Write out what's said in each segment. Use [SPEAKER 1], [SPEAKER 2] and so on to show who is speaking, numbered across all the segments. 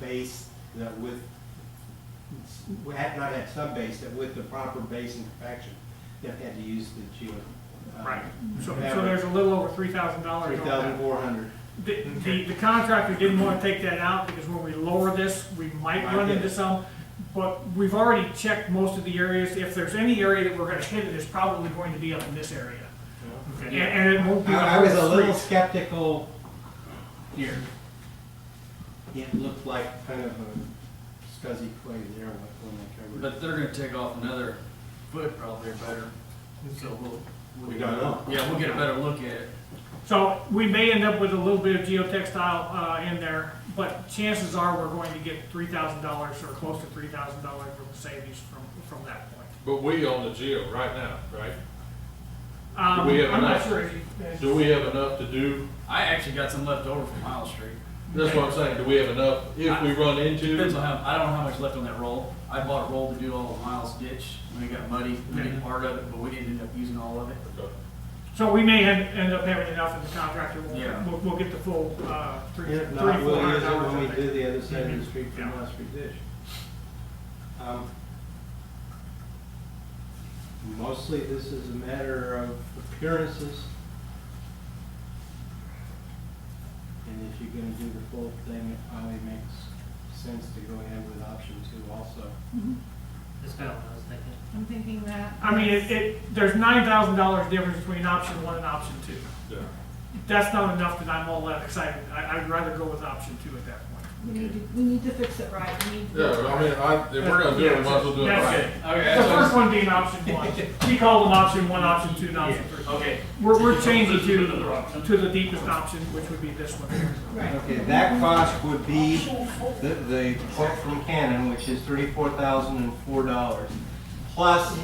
[SPEAKER 1] base that with, we had not had sub-base, that with the proper base and compaction, that had to use the geo. uh,
[SPEAKER 2] Right, so, so there's a little over three thousand dollars on that.
[SPEAKER 1] 3,400.
[SPEAKER 2] The, the- the contractor didn't wanna take that out, because when we lower this, we might
[SPEAKER 1] Might
[SPEAKER 2] run
[SPEAKER 1] get
[SPEAKER 2] into
[SPEAKER 1] it.
[SPEAKER 2] some, but we've already checked most of the areas, if there's any area that we're gonna hit, it is probably going to be up in this area. And, and it won't be.
[SPEAKER 1] I I was a little
[SPEAKER 2] streets.
[SPEAKER 1] skeptical here. It looked like kind of a scuzzy clay there when when they covered.
[SPEAKER 3] But they're gonna take off another foot probably or better, so we'll. we'll
[SPEAKER 1] We
[SPEAKER 3] get a-
[SPEAKER 1] don't know.
[SPEAKER 3] Yeah, we'll get a better look at it.
[SPEAKER 2] So, we may end up with a little bit of geotextile, uh, in there, but chances are we're going to get three thousand dollars or close to three thousand dollars from the savings from, from that point.
[SPEAKER 4] But we own the jail right now, right?
[SPEAKER 2] Um,
[SPEAKER 4] we have
[SPEAKER 2] I'm not
[SPEAKER 4] enough?
[SPEAKER 2] sure if you. if-
[SPEAKER 4] Do we have enough to do,
[SPEAKER 3] I actually got some left over from Miles Street.
[SPEAKER 4] that's what I'm saying, do we have enough if we run
[SPEAKER 3] Depends
[SPEAKER 4] into?
[SPEAKER 3] on how, I don't know how much left on that roll. I bought a roll to do all of Miles ditch, and it got muddy, we
[SPEAKER 1] Mm-hmm.
[SPEAKER 3] did part of it, but we didn't end up using all of it.
[SPEAKER 2] So we may end, end up having enough in the contractor,
[SPEAKER 3] Yeah.
[SPEAKER 2] we'll, we'll, we'll get the full, uh, three, three,
[SPEAKER 1] If
[SPEAKER 2] four
[SPEAKER 1] not, we'll
[SPEAKER 2] hundred
[SPEAKER 1] use it
[SPEAKER 2] dollars.
[SPEAKER 1] when
[SPEAKER 2] I
[SPEAKER 1] we
[SPEAKER 2] think.
[SPEAKER 1] do the other side of the street from
[SPEAKER 2] Mm-hmm. Yeah.
[SPEAKER 1] West Street Dish. Um, Mostly, this is a matter of appearances. And if you're gonna do the full thing, it probably makes sense to go ahead with option two also.
[SPEAKER 5] That's about what I was thinking.
[SPEAKER 6] I'm thinking that.
[SPEAKER 2] I mean, it, it, there's nine thousand dollars difference between option one and option two.
[SPEAKER 4] Yeah.
[SPEAKER 2] That's not enough that I'm all that excited, I, I'd rather go with option two at that point.
[SPEAKER 6] We need to, we need to fix it right, we need to.
[SPEAKER 4] Yeah, I mean, I, if we're gonna do it, we might as well do it
[SPEAKER 2] That's
[SPEAKER 4] right.
[SPEAKER 2] it.
[SPEAKER 3] Okay,
[SPEAKER 2] The first
[SPEAKER 3] so,
[SPEAKER 2] one being option one, he called them option one, option two, and option three.
[SPEAKER 3] okay,
[SPEAKER 2] We're, we're changing to, the- to the deepest option, which would be this one here.
[SPEAKER 6] Right.
[SPEAKER 1] Okay, that cost would be the, the quote from Canon, which is thirty-four thousand and four dollars, plus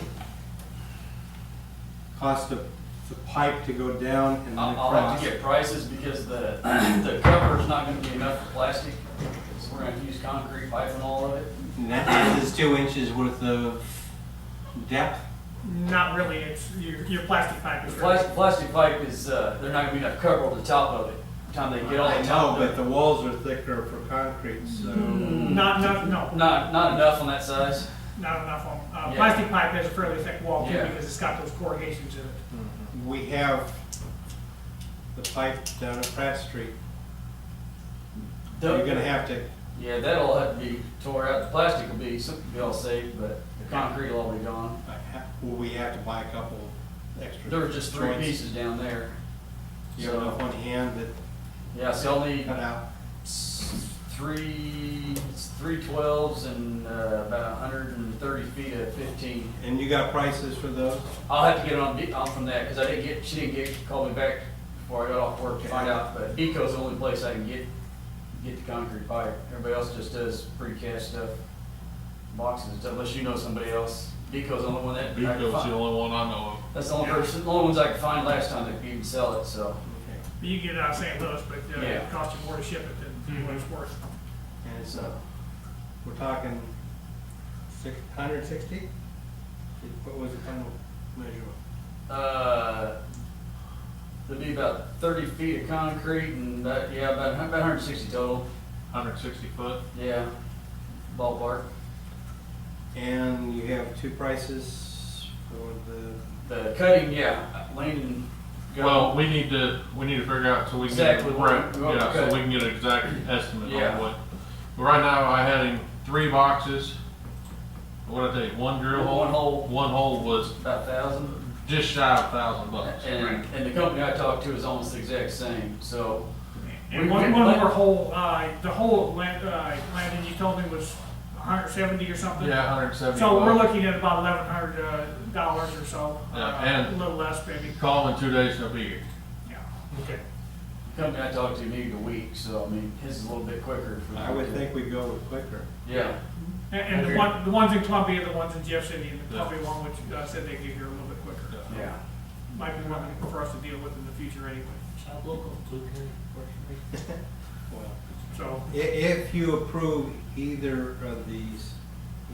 [SPEAKER 1] cost of the pipe to go down and then
[SPEAKER 3] I'll, I'll have
[SPEAKER 1] across.
[SPEAKER 3] to get prices because the, the cover's not gonna be enough for plastic. So we're gonna have to use concrete pipe and all of it.
[SPEAKER 1] And that is two inches worth of depth.
[SPEAKER 2] Not really, it's, your, your plastic pipe is.
[SPEAKER 3] The plastic, plastic pipe is, uh, they're not gonna be enough cover over the top of it, By the time they get all
[SPEAKER 1] I
[SPEAKER 3] the
[SPEAKER 1] know,
[SPEAKER 3] top.
[SPEAKER 1] but the walls are thicker for concrete, so.
[SPEAKER 2] Not, not, no,
[SPEAKER 3] Not, not enough on that size.
[SPEAKER 2] not enough on, uh,
[SPEAKER 3] Yeah.
[SPEAKER 2] plastic pipe has a fairly thick wall too,
[SPEAKER 3] Yeah.
[SPEAKER 2] because it's got those corrugations in it.
[SPEAKER 1] We have the pipe down at Pratt Street. You're gonna have to uh,
[SPEAKER 3] Yeah, that'll have to be tore out, the plastic will be, something will be all saved, but the concrete will all be gone.
[SPEAKER 1] I ha- Will we have to buy a couple extra?
[SPEAKER 3] There were just three
[SPEAKER 1] joints?
[SPEAKER 3] pieces down there.
[SPEAKER 1] You have enough
[SPEAKER 3] So,
[SPEAKER 1] on hand that
[SPEAKER 3] yeah, so I'll need
[SPEAKER 1] cut out?
[SPEAKER 3] s- three, three twelves and, uh, about a hundred and thirty feet of fifteen.
[SPEAKER 1] And you got prices for those?
[SPEAKER 3] I'll have to get on, Be- on from that, cause I didn't get, she didn't get, call me back before I got off work to find out, but Eco's the only place I can get, get the concrete pipe. Everybody else just does precast stuff, boxes and stuff, unless you know somebody else. Eco's the only one that. I can
[SPEAKER 4] Beco's
[SPEAKER 3] find.
[SPEAKER 4] the only one I know
[SPEAKER 3] That's the only person, the only ones I could find last time that could even sell it, so.
[SPEAKER 1] Okay.
[SPEAKER 2] You can get it out of St. Louis, but uh,
[SPEAKER 3] Yeah. Mm-hmm.
[SPEAKER 2] it costs you more to ship it than what it's worth.
[SPEAKER 1] And it's, uh, we're talking six, hundred sixty? What was the final measure?
[SPEAKER 3] Uh, there'd be about thirty feet of concrete and that, yeah, about, about hundred and sixty total,
[SPEAKER 4] of, hundred sixty foot.
[SPEAKER 3] yeah, ballpark.
[SPEAKER 1] And you have two prices for the,
[SPEAKER 3] The cutting, yeah, Landon. got-
[SPEAKER 4] Well, we need to, we need to figure out so we can. get a
[SPEAKER 3] Exactly, we
[SPEAKER 4] rep-
[SPEAKER 3] want- we want
[SPEAKER 4] Yeah,
[SPEAKER 3] to
[SPEAKER 4] so
[SPEAKER 3] cut.
[SPEAKER 4] we can get an exact estimate
[SPEAKER 3] Yeah.
[SPEAKER 4] on what. But right now, I had him three boxes. What did I tell you, one drill hole?
[SPEAKER 3] One hole.
[SPEAKER 4] One hole was
[SPEAKER 3] About a thousand.
[SPEAKER 4] just shy of a thousand bucks.
[SPEAKER 3] And, and the company I talked to is almost the exact same, so,
[SPEAKER 2] And
[SPEAKER 3] We
[SPEAKER 2] one,
[SPEAKER 3] can-
[SPEAKER 2] one more hole, uh, the hole of Lan- uh, Landon, you told me was hundred seventy or something?
[SPEAKER 4] Yeah, hundred seventy.
[SPEAKER 2] So we're looking at about eleven hundred, uh, dollars or so.
[SPEAKER 4] Yeah,
[SPEAKER 2] uh,
[SPEAKER 4] and-
[SPEAKER 2] A little less maybe,
[SPEAKER 4] Call in two days, he'll be here.
[SPEAKER 2] yeah. Okay.
[SPEAKER 3] the company I talked to needed a week, so I mean, his is a little bit quicker. for
[SPEAKER 1] I would think we'd go with quicker.
[SPEAKER 3] Yeah,
[SPEAKER 2] And, and the
[SPEAKER 3] Okay.
[SPEAKER 2] one, the ones in Columbia, the ones in Jeff City, and the
[SPEAKER 4] Yeah.
[SPEAKER 2] Columbia one, which uh, said they'd get here a little bit quicker.
[SPEAKER 3] yeah.
[SPEAKER 2] Might be one for us to deal with in the future anyway,
[SPEAKER 1] Well,
[SPEAKER 2] so.
[SPEAKER 1] i- if you approve either of these,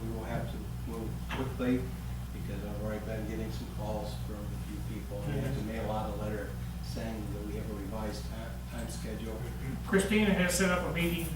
[SPEAKER 1] we will have to move quickly because I've already been getting some calls from a few people. and I have to mail out a letter saying that we have a revised time, time schedule.
[SPEAKER 2] Christina has set up a meeting